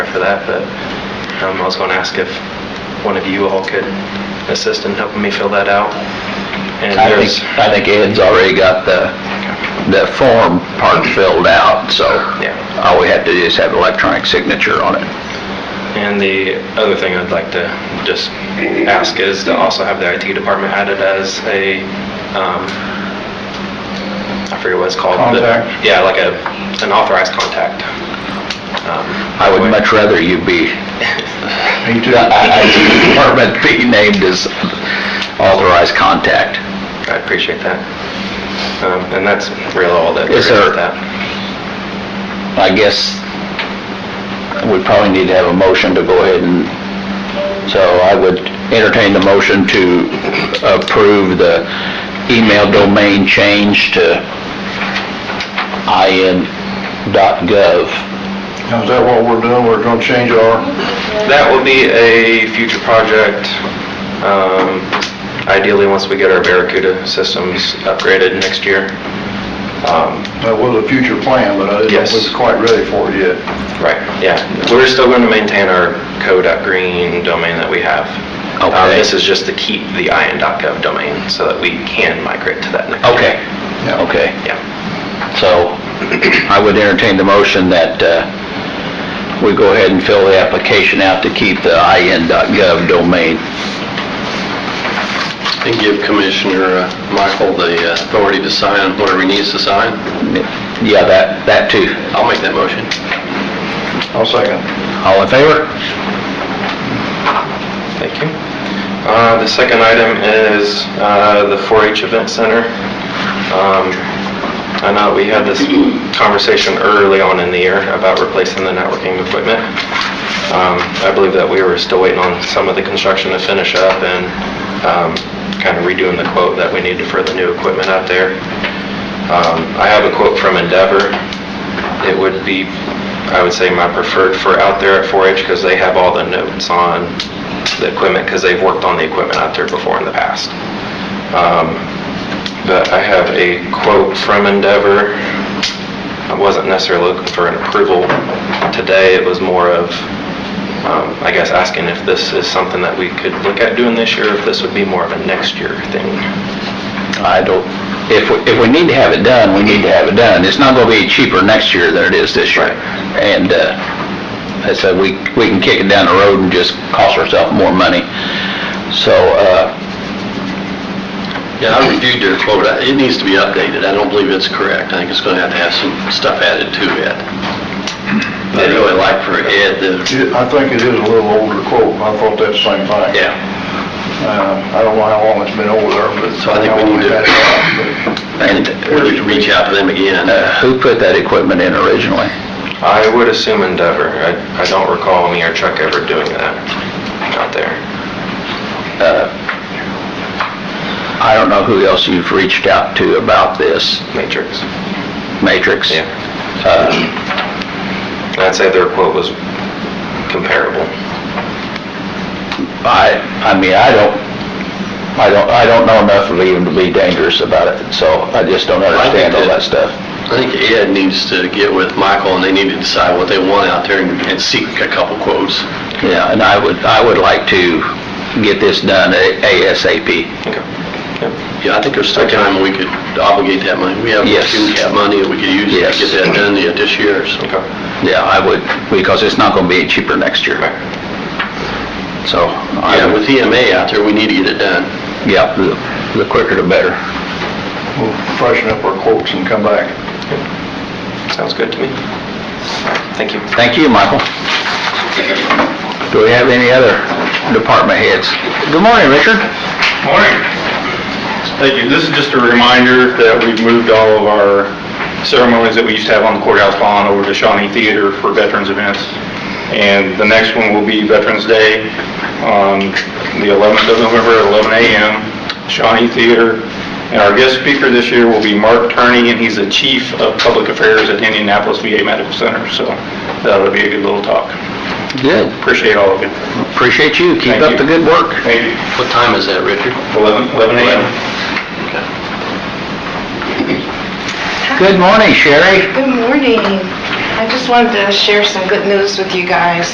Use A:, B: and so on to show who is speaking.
A: for that, but um, I was going to ask if one of you all could assist in helping me fill that out. And
B: I
A: there's-
B: think, I think Ed's already got the, the form part filled out, so
A: Yeah.
B: all we have to do is have electronic signature on it.
A: And the other thing I'd like to just ask is to also have the IT department added as a, um, I forget what it's called. but-
C: Contact?
A: Yeah, like a, an authorized contact. Um,
B: I would much rather you be,
C: Me too.
B: the IT department be named as authorized contact.
A: I appreciate that. Um, And that's really all that there
B: Yes,
A: is to
B: sir.
A: that.
B: I guess we probably need to have a motion to go ahead and, so I would entertain the motion to approve the email domain change to in.gov.
C: Now, is that what we're doing? We're gonna change our,
A: That will be a future project, um, ideally once we get our Barracuda systems upgraded next year. Um,
C: that was a future plan, but I didn't know if
A: Yes.
C: we were quite ready for it yet.
A: Right, yeah. We're still going to maintain our co.green domain that we have. Uh,
B: Okay.
A: This is just to keep the IN.gov domain so that we can migrate to that next.
B: Okay,
C: Yeah.
B: okay.
A: Yeah,
B: So I would entertain the motion that uh, we go ahead and fill the application out to keep the in.gov domain.
D: And give Commissioner uh, Michael the authority to sign whatever he needs to sign.
B: Yeah, that, that too.
D: I'll make that motion.
C: I'll second.
B: All in favor?
A: thank you. Uh, The second item is uh, the 4-H Event Center. Um, I know we had this conversation early on in the year about replacing the networking equipment. Um, I believe that we were still waiting on some of the construction to finish up and kind of redoing the quote that we needed for the new equipment out there. Um, I have a quote from Endeavor. It would be, I would say, my preferred for out there at 4-H because they have all the notes on the equipment because they've worked on the equipment out there before in the past. Um, But I have a quote from Endeavor. I wasn't necessarily looking for an approval today. It was more of, um, I guess, asking if this is something that we could look at doing this year, if this would be more of a next year thing.
B: I don't, if, we- if we need to have it done, we need to have it done. It's not gonna be cheaper next year than it is this year. And, uh, I said, we, we can kick it down the road and just cost ourselves more money. So, uh,
D: Yeah, I reviewed their quote. I- It needs to be updated. I don't believe it's correct. I think it's going to have to have some stuff added to it. But I'd really like for Ed to,
C: It- I think it is a little older quote. I thought that same thing.
D: yeah.
C: Uh, I don't know how long it's been over there, but.
D: So I think we
C: how long
D: need to-
C: we've had it, but-
B: and,
D: We need to reach out to them again.
B: uh, who put that equipment in originally?
A: I would assume Endeavor. I, I don't recall me or Chuck ever doing that out there.
B: Uh, I don't know who else you've reached out to about this,
A: Matrix.
B: Matrix?
A: Yeah.
B: Uh,
A: And I'd say their quote was comparable.
B: I, I mean, I don't, I don't, I don't know enough of even to be dangerous about it, so I just don't understand all that stuff.
D: I think Ed needs to get with Michael and they need to decide what they want out there and and seek a couple quotes.
B: Yeah, and I would, I would like to get this done ASAP.
A: Okay. Yep.
D: Yeah, I think there's still time we could obligate that money. We have
B: Yes.
D: cap money that we could use
B: Yes.
D: to get that done yet this year, so.
A: Okay.
B: Yeah, I would, because it's not gonna be any cheaper next year.
A: Right.
B: So, I
D: Yeah,
B: would,
D: with EMA out there, we need to get it done.
B: yeah, the- the quicker the better.
C: We'll freshen up our quotes and come back.
A: Sounds good to me. Thank you.
B: Thank you, Michael. Do we have any other department heads? Good morning, Richard.
E: Morning. Thank you. This is just a reminder that we've moved all of our ceremonies that we used to have on the courthouse lawn over to Shawnee Theater for veterans events. And the next one will be Veterans Day on the 11th of November at 11 a.m., Shawnee Theater. And our guest speaker this year will be Mark Turney, and he's the Chief of Public Affairs at Indianapolis VA Medical Center. So that'll be a good little talk.
B: Good.
E: Appreciate all of you.
B: Appreciate you. Keep
E: Thank
B: up
E: you.
B: the good work.
E: Thank you.
D: What time is that, Richard?
E: 11 11 a.m.
B: Good morning, Sherry.
F: Good morning. I just wanted to share some good news with you guys.